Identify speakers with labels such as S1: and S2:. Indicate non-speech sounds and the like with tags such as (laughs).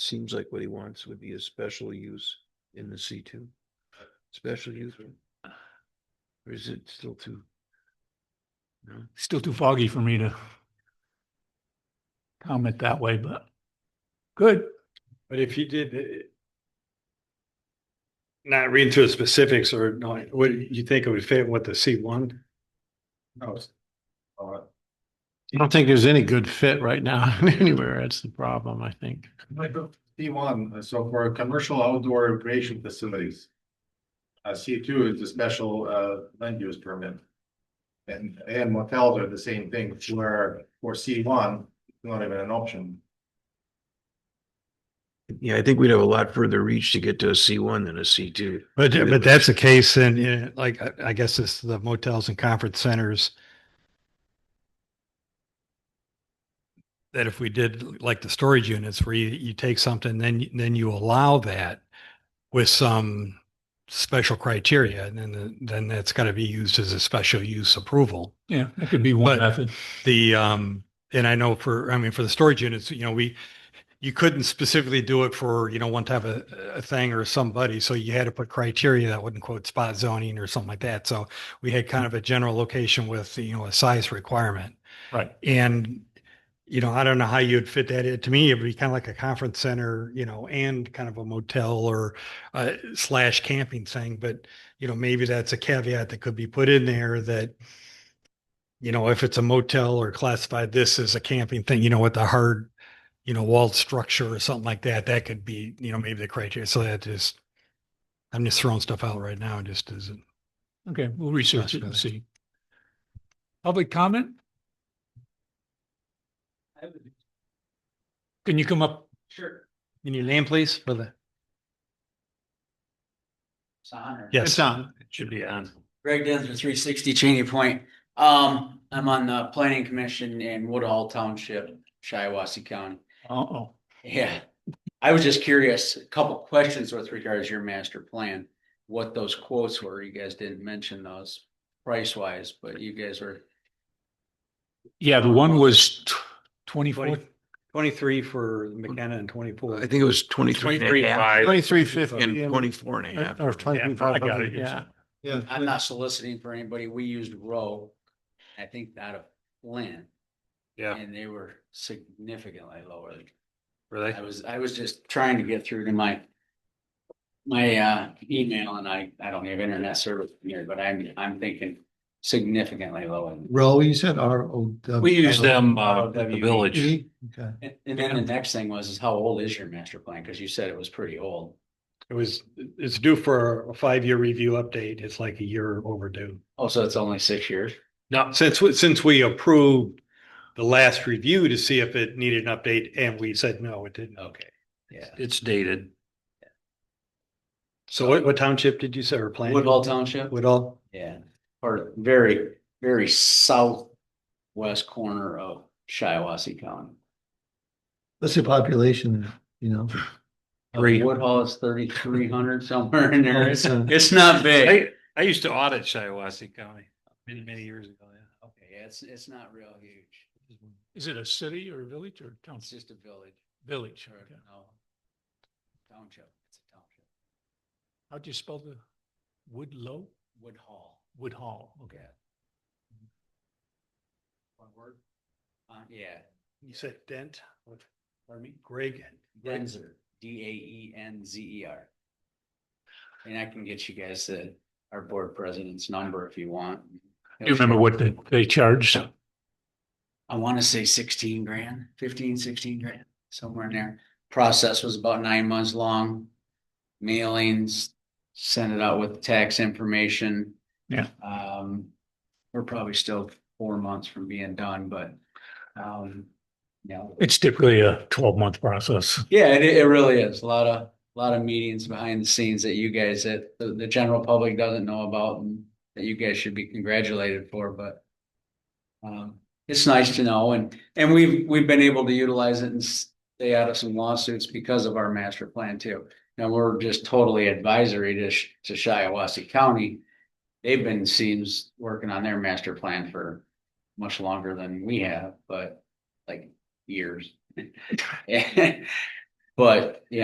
S1: seems like what he wants would be a special use in the C two. Special use. Or is it still too? No,
S2: Still too foggy for me to comment that way, but good.
S3: But if you did it- not read through the specifics or not, what you think it would fit with the C one?
S4: I don't think there's any good fit right now (laughs) anywhere. That's the problem, I think.
S5: Like C one, so for commercial outdoor recreation facilities. Uh, C two is a special uh land use permit. And and motels are the same thing, where for C one, not even an option.
S1: yeah, I think we'd have a lot further reach to get to a C one than a C two.
S3: But,
S1: Yeah,
S3: but
S1: but-
S3: that's the case in, in, like, I, I guess it's the motels and conference centers. That if we did like the storage units where you, you take something, then, you- then you allow that with some special criteria, and then, the- then that's gotta be used as a special use approval.
S2: Yeah, that could be one
S3: But-
S2: method.
S3: The, um, and I know for, I mean, for the storage units, you know, we, you couldn't specifically do it for, you know, one type of a thing or somebody. So you had to put criteria that wouldn't quote spot zoning or something like that. So we had kind of a general location with, you know, a size requirement.
S2: Right.
S3: And, you know, I don't know how you'd fit that in. To me, it'd be kind of like a conference center, you know, and kind of a motel or uh, slash camping thing. But, you know, maybe that's a caveat that could be put in there that, you know, if it's a motel or classified this as a camping thing, you know, with a hard, you know, walled structure or something like that, that could be, you know, maybe the criteria. So that just, I'm just throwing stuff out right now. It just isn't.
S2: Okay, we'll research it and see. Public comment? Can you come up?
S6: Sure.
S2: In your name, please, for the.
S6: It's on or?
S3: Yes.
S4: on. It should be on.
S6: Greg Denzer, three sixty Cheney Point. Um, I'm on the planning commission in Woodhull Township, Shiawassee County.
S2: Uh-oh.
S6: Yeah, I was just curious, a couple questions with regards to your master plan. What those quotes were, you guys didn't mention those price wise, but you guys were
S2: Yeah, the one was twenty-four,
S3: 23 for McKenna and 24.
S1: I think it was twenty-three and a half
S4: Twenty-three fifty.
S1: and twenty-four and a half.
S4: Or twenty-three
S2: Yeah, I
S4: five
S2: got
S4: hundred,
S2: it.
S4: yeah.
S5: Yeah.
S6: I'm not soliciting for anybody. We used Row, I think out of Lynn.
S3: Yeah.
S6: And they were significantly lower. Really? I was, I was just trying to get through to my my uh email and I, I don't have internet service here, but I'm, I'm thinking significantly lower.
S5: Row, you said R O W.
S7: We use them, uh,
S6: Oh,
S7: at the
S6: WB.
S7: village.
S5: Okay.
S6: And and then the next thing was, is how old is your master plan? Cause you said it was pretty old.
S3: It was, it's due for a five-year review update. It's like a year overdue.
S6: Oh, so it's only six years?
S3: Now, since, we- since we approved the last review to see if it needed an update and we said, no, it didn't.
S6: Okay, yeah.
S7: It's dated.
S3: So what, what township did you say or plan?
S6: Woodhall Township?
S3: Woodall.
S6: Yeah, or very, very southwest corner of Shiawassee County.
S5: What's the population, you know?
S6: Uh,
S7: Three.
S6: Woodhall is thirty-three hundred somewhere in there. It's,
S2: uh,
S5: Oh,
S6: it's not big.
S7: I, I used to audit Shiawassee County many, many years ago, yeah.
S6: Okay, yeah, it's, it's not real huge.
S2: is it a city or a village or town?
S6: It's just a village.
S2: Village.
S6: or,
S2: okay.
S6: no, Township, it's a township.
S2: How'd you spell the Woodlow?
S6: Woodhall,
S2: Woodhall, okay.
S6: one word? Uh, yeah,
S3: You said Dent, what, pardon me, Greg.
S6: Denzer, D A E N Z E R. And I can get you guys the, our board president's number if you want.
S2: Do you remember what they, they charged?
S6: I want to say sixteen grand, 15, 16 grand, somewhere in there. Process was about nine months long. Mailings, sent it out with tax information.
S2: Yeah.
S6: Um, we're probably still four months from being done, but, um, you know,
S2: It's typically a twelve-month process.
S6: yeah, it, it really is. A lot of, lot of meetings behind the scenes that you guys, that the, the general public doesn't know about and that you guys should be congratulated for, but um, it's nice to know and, and we've, we've been able to utilize it and stay out of some lawsuits because of our master plan too. Now, we're just totally advisory to, Sh- to Shiawassee County. They've been seems working on their master plan for much (laughs) longer than we have, but like years. But, yeah,